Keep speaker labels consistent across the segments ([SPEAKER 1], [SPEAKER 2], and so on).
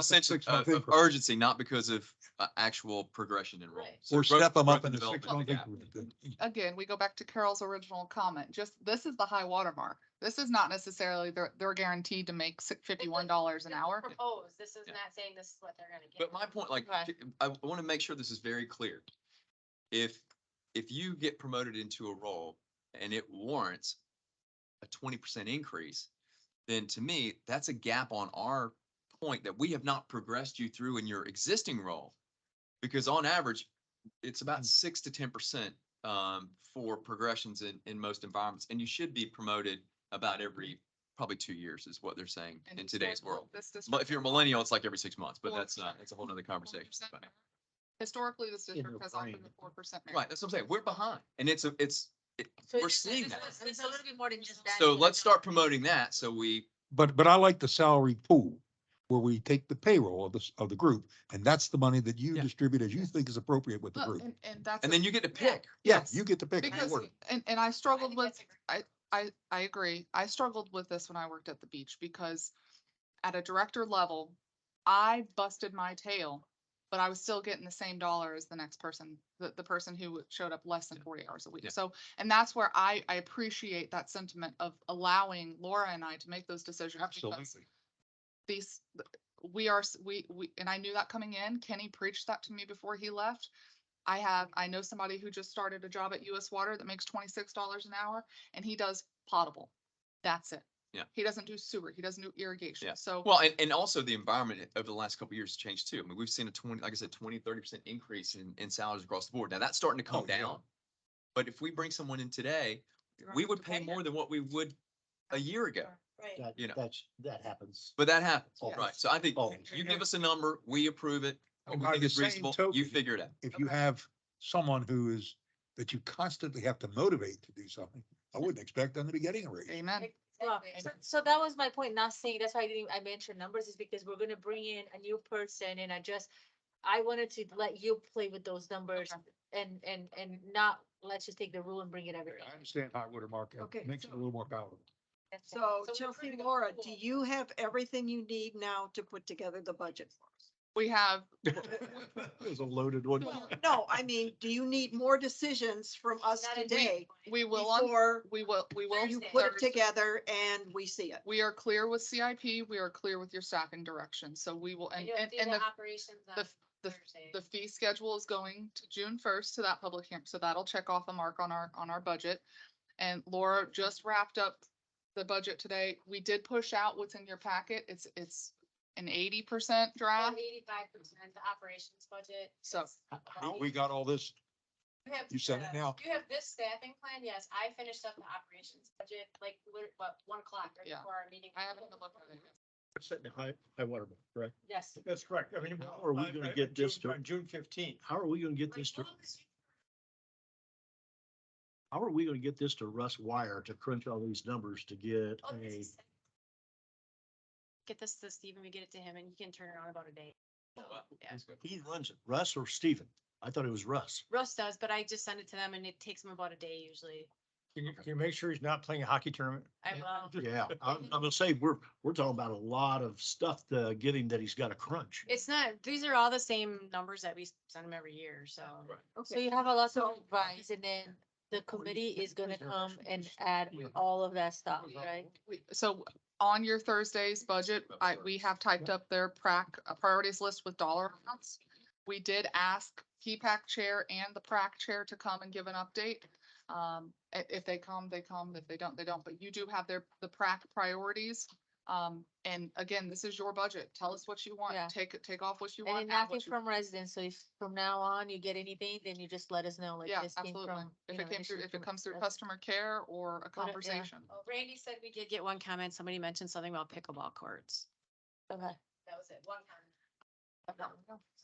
[SPEAKER 1] a sense of,
[SPEAKER 2] Six month
[SPEAKER 1] uh, of
[SPEAKER 2] increment.
[SPEAKER 1] urgency, not because of uh, actual progression in role.
[SPEAKER 3] Right.
[SPEAKER 1] So
[SPEAKER 2] Or
[SPEAKER 1] growth-
[SPEAKER 2] step them
[SPEAKER 1] growth
[SPEAKER 2] up in the
[SPEAKER 1] development
[SPEAKER 2] six month
[SPEAKER 1] gap.
[SPEAKER 2] increment.
[SPEAKER 4] again, we go back to Carol's original comment, just, this is the high watermark. This is not necessarily, they're, they're guaranteed to make si- fifty-one dollars an hour.
[SPEAKER 3] Propose, this is
[SPEAKER 1] Yeah.
[SPEAKER 3] not saying this is what they're gonna get.
[SPEAKER 1] But my point, like,
[SPEAKER 4] Okay.
[SPEAKER 1] t- I want to make sure this is very clear. If, if you get promoted into a role and it warrants a twenty percent increase, then to me, that's a gap on our point that we have not progressed you through in your existing role. Because on average, it's
[SPEAKER 4] Mm.
[SPEAKER 1] about six to ten percent um, for progressions in, in most environments. And you should be promoted about every, probably two years is what they're saying in
[SPEAKER 4] And
[SPEAKER 1] today's
[SPEAKER 4] historical-
[SPEAKER 1] world.
[SPEAKER 4] this
[SPEAKER 1] But
[SPEAKER 4] district
[SPEAKER 1] if you're a
[SPEAKER 4] has
[SPEAKER 1] millennial, it's like every six months, but
[SPEAKER 4] Four
[SPEAKER 1] that's not,
[SPEAKER 4] percent.
[SPEAKER 1] that's a whole nother
[SPEAKER 4] 4%
[SPEAKER 1] conversation. but-
[SPEAKER 4] merit. Historically, this district
[SPEAKER 2] your
[SPEAKER 4] has offered
[SPEAKER 2] brain.
[SPEAKER 4] the four percent.
[SPEAKER 1] Right, that's what I'm saying. We're behind and it's, a it's, it- we're seeing that.
[SPEAKER 3] It's a little bit more than just that.
[SPEAKER 1] So let's start promoting that. So we,
[SPEAKER 2] But, but I like the salary pool where we take the payroll of this, of the group and that's the money that you
[SPEAKER 1] Yeah.
[SPEAKER 2] distribute as you think is appropriate with the
[SPEAKER 4] Well,
[SPEAKER 2] group.
[SPEAKER 4] and, and that's.
[SPEAKER 1] and
[SPEAKER 4] a-
[SPEAKER 1] then you get to pick.
[SPEAKER 2] Yeah,
[SPEAKER 4] yes.
[SPEAKER 2] you get to pick. and
[SPEAKER 4] Because,
[SPEAKER 2] work.
[SPEAKER 4] and, and I struggled
[SPEAKER 3] think
[SPEAKER 4] with,
[SPEAKER 3] that's
[SPEAKER 4] I, I, I agree. I struggled with this when I worked at the beach because at a director level, I busted my tail, but I was still getting the same dollar as the next person, the, the person who showed up less than
[SPEAKER 1] Yeah.
[SPEAKER 4] forty hours a week.
[SPEAKER 1] Yeah.
[SPEAKER 4] So, and that's where I, I appreciate that sentiment of allowing Laura and I to make those decisions. because these, we are, s- we, we, and I knew that coming in, Kenny preached that to me before he left. I have, I know somebody who just started a job at US Water that makes twenty-six dollars an hour and he does potable. That's it.
[SPEAKER 1] Yeah.
[SPEAKER 4] He doesn't do sewer, he doesn't do irrigation,
[SPEAKER 1] Yeah.
[SPEAKER 4] so.
[SPEAKER 1] Well, and, and also the environment over the last couple of years has changed too. I mean, we've seen a twenty, like I said, 20, 30 percent increase in, in salaries across the board. Now that's starting to come
[SPEAKER 2] Oh, yeah.
[SPEAKER 1] down. But if we bring someone in today, we would pay more than what we would a year ago,
[SPEAKER 3] Right.
[SPEAKER 5] That,
[SPEAKER 1] you know.
[SPEAKER 5] that's, that happens.
[SPEAKER 1] but that happens.
[SPEAKER 5] Yes.
[SPEAKER 1] Right. So I think
[SPEAKER 5] Oh,
[SPEAKER 1] you give us a number, we approve it. What we
[SPEAKER 2] By
[SPEAKER 1] think
[SPEAKER 2] the
[SPEAKER 1] is
[SPEAKER 2] same
[SPEAKER 1] reasonable, you
[SPEAKER 2] token,
[SPEAKER 1] figure it out.
[SPEAKER 2] If you have someone who is, that you constantly have to motivate to do something, I wouldn't expect them to be getting a raise.
[SPEAKER 4] Amen.
[SPEAKER 3] Well,
[SPEAKER 4] Exactly.
[SPEAKER 3] so- So that was my point, not saying, that's why I didn't, I mentioned numbers is because we're gonna bring in a new person and I just, I wanted to let you play with those numbers and, and, and not, let's just take the rule and bring it everything.
[SPEAKER 2] I understand high water market
[SPEAKER 6] Okay,
[SPEAKER 2] makes it a
[SPEAKER 6] so-
[SPEAKER 2] little more palatable.
[SPEAKER 3] That's it.
[SPEAKER 6] So
[SPEAKER 3] we're
[SPEAKER 6] Chelsea,
[SPEAKER 3] putting a
[SPEAKER 6] Laura, do
[SPEAKER 3] pool.
[SPEAKER 6] you have everything you need now to put together the budget for us?
[SPEAKER 4] We have,
[SPEAKER 2] It was a loaded one.
[SPEAKER 6] No, I mean, do you need more decisions from us
[SPEAKER 3] Not in
[SPEAKER 6] today
[SPEAKER 3] January.
[SPEAKER 4] we will, on-
[SPEAKER 6] before
[SPEAKER 4] we will, we will.
[SPEAKER 6] you
[SPEAKER 3] Thursday.
[SPEAKER 6] put it
[SPEAKER 4] Thursday.
[SPEAKER 6] together and we see it?
[SPEAKER 4] We are clear with CIP, we are clear with your staffing direction, so we will,
[SPEAKER 3] And
[SPEAKER 4] and,
[SPEAKER 3] you'll
[SPEAKER 4] and,
[SPEAKER 3] do
[SPEAKER 4] and
[SPEAKER 3] the
[SPEAKER 4] the
[SPEAKER 3] operations on
[SPEAKER 4] the f- the f-
[SPEAKER 3] Thursday.
[SPEAKER 4] The fee schedule is going to June first to that public hearing, so that'll check off a mark on our, on our budget. And Laura just wrapped up the budget today. We did push out what's in your packet. It's, it's an eighty percent draft.
[SPEAKER 3] Eighty-five percent, the operations budget.
[SPEAKER 4] Uh, So-
[SPEAKER 3] is
[SPEAKER 2] We-
[SPEAKER 3] about-
[SPEAKER 2] We got all this.
[SPEAKER 3] You have-
[SPEAKER 2] you said it
[SPEAKER 3] uh,
[SPEAKER 2] now.
[SPEAKER 3] You have this staffing plan, yes, I finished up the operations budget, like, lit- what, one o'clock right
[SPEAKER 4] Yeah.
[SPEAKER 3] before our meeting.
[SPEAKER 4] I haven't looked at it.
[SPEAKER 5] Setting a high, high water, mark, correct?
[SPEAKER 3] Yes.
[SPEAKER 7] That's correct. I mean.
[SPEAKER 5] How are we
[SPEAKER 7] I-
[SPEAKER 5] gonna
[SPEAKER 7] I-
[SPEAKER 5] get
[SPEAKER 7] June-
[SPEAKER 5] this to-
[SPEAKER 7] on June fifteenth.
[SPEAKER 5] How are we gonna get
[SPEAKER 3] Like,
[SPEAKER 5] this to,
[SPEAKER 3] well, 'cause you-
[SPEAKER 5] how are we gonna get this to Russ Wire to crunch all these numbers to get
[SPEAKER 3] oh, this
[SPEAKER 5] a,
[SPEAKER 3] is- Get this to Steven, we get it to him and he can turn it on about a day. So, yeah.
[SPEAKER 5] he runs it, Russ or Steven? I thought it was Russ.
[SPEAKER 3] Russ does, but I just send it to them and it takes them about a day usually.
[SPEAKER 7] Can you, can you make sure he's not playing a hockey tournament?
[SPEAKER 3] I will.
[SPEAKER 5] Yeah, I'm, I'm gonna say, we're, we're talking about a lot of stuff to get him that he's gotta crunch.
[SPEAKER 3] It's not, these are all the same numbers that we send them every year, so.
[SPEAKER 1] Right.
[SPEAKER 3] So you have a lot of advice and then the committee is gonna come and add all of that stuff, right?
[SPEAKER 4] We- So on your Thursday's budget, I, we have typed up their prac, a priorities list with dollar amounts. We did ask PPAC chair and the PRAC chair to come and give an update. Um, i- if they come, they come, if they don't, they don't, but you do have their, the PRAC priorities. Um, and again, this is your budget. Tell us what you want,
[SPEAKER 3] Yeah.
[SPEAKER 4] take, it- take off what you
[SPEAKER 3] And
[SPEAKER 4] want.
[SPEAKER 3] then
[SPEAKER 4] add
[SPEAKER 3] nothing
[SPEAKER 4] what you-
[SPEAKER 3] from residents, so if from now on you get anything, then you just let us know, like
[SPEAKER 4] Yeah,
[SPEAKER 3] this came
[SPEAKER 4] absolutely.
[SPEAKER 3] from.
[SPEAKER 4] If
[SPEAKER 3] you
[SPEAKER 4] it
[SPEAKER 3] know,
[SPEAKER 4] came through,
[SPEAKER 3] issues
[SPEAKER 4] if it
[SPEAKER 3] from
[SPEAKER 4] comes through
[SPEAKER 3] residents.
[SPEAKER 4] customer care or a
[SPEAKER 3] What it- yeah.
[SPEAKER 4] conversation.
[SPEAKER 3] Randy said we did get one comment, somebody mentioned something about pickleball courts. Okay. That was it, one comment.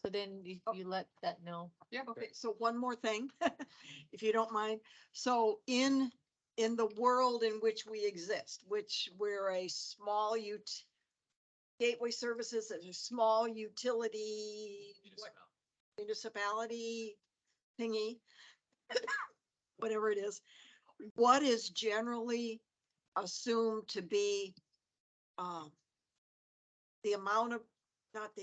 [SPEAKER 3] So then you,
[SPEAKER 6] Oh.
[SPEAKER 3] you let that know.
[SPEAKER 4] Yeah,
[SPEAKER 6] Okay, so one more thing, if you don't mind. So in, in the world in which we exist, which we're a small ut, Gateway Services is a small utility, what- municipality thingy, whatever it is, what is generally assumed to be um, the amount of, not the